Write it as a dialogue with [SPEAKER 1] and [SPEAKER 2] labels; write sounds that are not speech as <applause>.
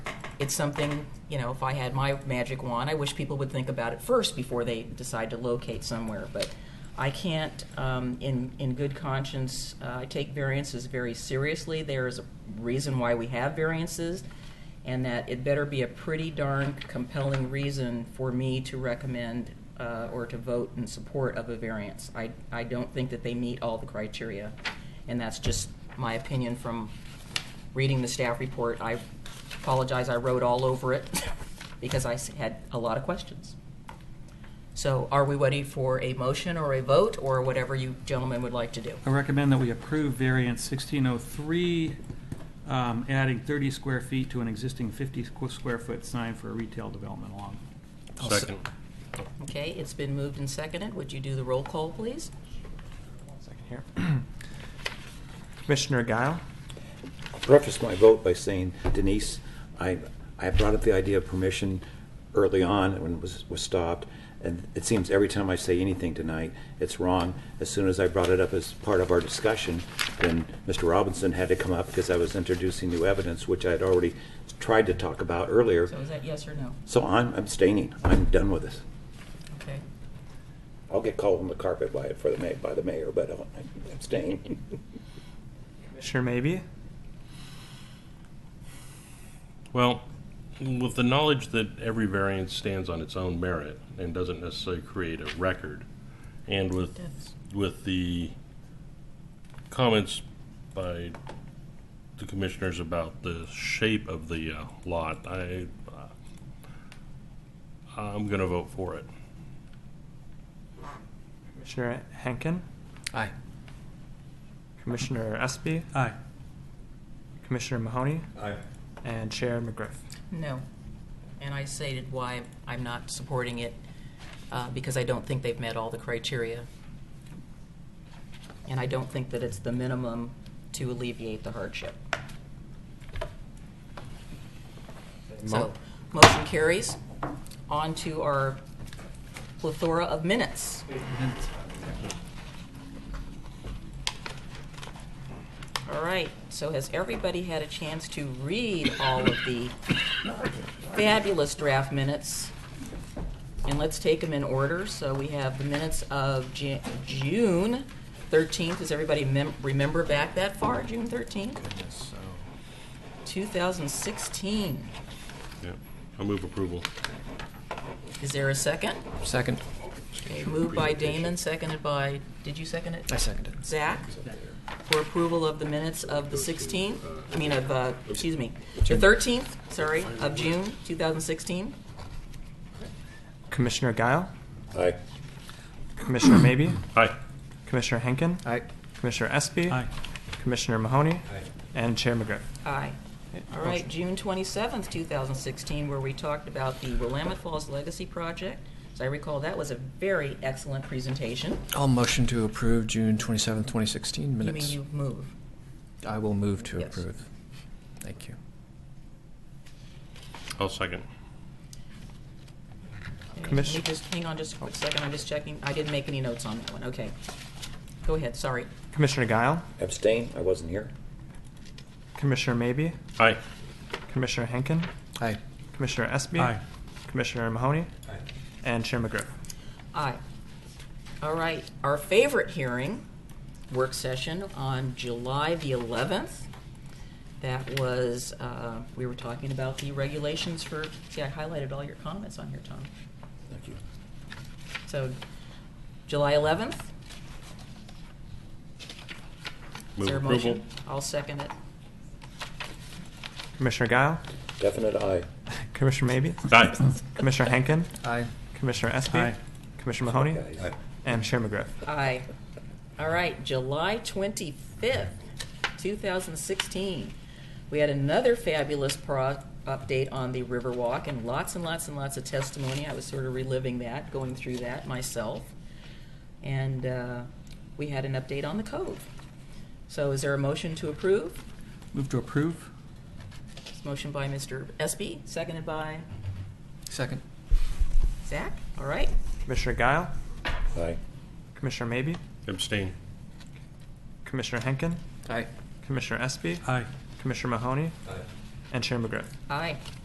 [SPEAKER 1] it's something, you know, if I had my magic wand, I wish people would think about it first before they decide to locate somewhere. But I can't, um, in, in good conscience, uh, I take variances very seriously. There is a reason why we have variances, and that it better be a pretty darn compelling reason for me to recommend uh, or to vote in support of a variance. I, I don't think that they meet all the criteria, and that's just my opinion from reading the staff report. I apologize, I wrote all over it <laughs> because I s- had a lot of questions. So are we ready for a motion or a vote or whatever you gentlemen would like to do?
[SPEAKER 2] I recommend that we approve variance 1603, um, adding 30 square feet to an existing 50 squ- square foot sign for a retail development along.
[SPEAKER 3] Second.
[SPEAKER 1] Okay, it's been moved and seconded. Would you do the roll call, please?
[SPEAKER 4] Second here. Commissioner Guile,
[SPEAKER 5] preface my vote by saying, Denise, I, I brought up the idea of permission early on when it was, was stopped, and it seems every time I say anything tonight, it's wrong. As soon as I brought it up as part of our discussion, then Mr. Robinson had to come up because I was introducing new evidence, which I had already tried to talk about earlier.
[SPEAKER 1] So is that yes or no?
[SPEAKER 5] So I'm abstaining. I'm done with this.
[SPEAKER 1] Okay.
[SPEAKER 5] I'll get called on the carpet by, for the ma, by the mayor, but I'll abstain. <laughs>
[SPEAKER 4] Commissioner Maybe,
[SPEAKER 3] Well, with the knowledge that every variance stands on its own merit and doesn't necessarily create a record, and with,
[SPEAKER 1] Yes.
[SPEAKER 3] with the comments by the commissioners about the shape of the uh, lot, I, uh, I'm going to vote for it.
[SPEAKER 4] Commissioner Henkin,
[SPEAKER 6] Aye.
[SPEAKER 4] Commissioner Espy,
[SPEAKER 2] Aye.
[SPEAKER 4] Commissioner Mahoney,
[SPEAKER 6] Aye.
[SPEAKER 4] and Chair McGriff.
[SPEAKER 1] No. And I stated why I'm not supporting it, uh, because I don't think they've met all the criteria. And I don't think that it's the minimum to alleviate the hardship. So,
[SPEAKER 4] Mo-
[SPEAKER 1] motion carries. On to our plethora of minutes. All right, so has everybody had a chance to read all of the fabulous draft minutes? And let's take them in order. So we have the minutes of Ju- June 13th. Does everybody mem- remember back that far, June 13th? 2016.
[SPEAKER 3] Yeah, I move approval.
[SPEAKER 1] Is there a second?
[SPEAKER 6] Second.
[SPEAKER 1] Okay, moved by Damon, seconded by, did you second it?
[SPEAKER 6] I second it.
[SPEAKER 1] Zach, for approval of the minutes of the 16th, I mean of, uh, excuse me, the 13th, sorry, of June 2016.
[SPEAKER 4] Commissioner Guile,
[SPEAKER 5] Aye.
[SPEAKER 4] Commissioner Maybe,
[SPEAKER 3] Aye.
[SPEAKER 4] Commissioner Henkin,
[SPEAKER 6] Aye.
[SPEAKER 4] Commissioner Espy,
[SPEAKER 2] Aye.
[SPEAKER 4] Commissioner Mahoney, and Chair McGriff.
[SPEAKER 1] Aye. All right,
[SPEAKER 4] Motion.
[SPEAKER 1] June 27th, 2016, where we talked about the Willamette Falls Legacy Project. As I recall, that was a very excellent presentation.
[SPEAKER 6] I'll motion to approve June twenty seventh, 2016
[SPEAKER 1] You mean
[SPEAKER 6] minutes.
[SPEAKER 1] you move?
[SPEAKER 6] I will move to
[SPEAKER 1] Yes.
[SPEAKER 6] approve. Thank you.
[SPEAKER 3] I'll second.
[SPEAKER 1] Okay,
[SPEAKER 4] Commis-
[SPEAKER 1] Let me just, hang on just a quick second, I'm just checking, I didn't make any notes on that one, okay. Go ahead, sorry.
[SPEAKER 4] Commissioner Guile,
[SPEAKER 5] Abstain? I wasn't here.
[SPEAKER 4] Commissioner Maybe,
[SPEAKER 3] Aye.
[SPEAKER 4] Commissioner Henkin,
[SPEAKER 6] Aye.
[SPEAKER 4] Commissioner Espy,
[SPEAKER 2] Aye.
[SPEAKER 4] Commissioner Mahoney, and Chair McGriff.
[SPEAKER 1] Aye. All right, our favorite hearing, work session on July the 11th. That was, uh, we were talking about the regulations for, see, I highlighted all your comments on here, Tom.
[SPEAKER 5] Thank you.
[SPEAKER 1] So, July 11th? Is
[SPEAKER 3] Move
[SPEAKER 1] there a
[SPEAKER 3] approval.
[SPEAKER 1] motion? I'll second it.
[SPEAKER 4] Commissioner Guile,
[SPEAKER 5] Definite aye.
[SPEAKER 4] Commissioner Maybe,
[SPEAKER 3] Aye.
[SPEAKER 4] Commissioner Henkin,
[SPEAKER 6] Aye.
[SPEAKER 4] Commissioner Espy,
[SPEAKER 2] Aye.
[SPEAKER 4] Commissioner Mahoney,
[SPEAKER 5] Guys.
[SPEAKER 4] and Chair McGriff.
[SPEAKER 1] Aye. All right, July 25th, 2016. We had another fabulous pro- update on the Riverwalk and lots and lots and lots of testimony. I was sort of reliving that, going through that myself. And uh, we had an update on the Cove. So is there a motion to approve?
[SPEAKER 2] Move to approve?
[SPEAKER 1] It's motion by Mr. Espy, seconded by
[SPEAKER 6] Second.
[SPEAKER 1] Zach. All right.
[SPEAKER 4] Commissioner Guile,
[SPEAKER 5] Aye.
[SPEAKER 4] Commissioner Maybe,
[SPEAKER 3] Abstain.
[SPEAKER 4] Commissioner Henkin,
[SPEAKER 6] Aye.
[SPEAKER 4] Commissioner Espy,
[SPEAKER 2] Aye.
[SPEAKER 4] Commissioner Mahoney, and Chair McGriff.
[SPEAKER 1] Aye.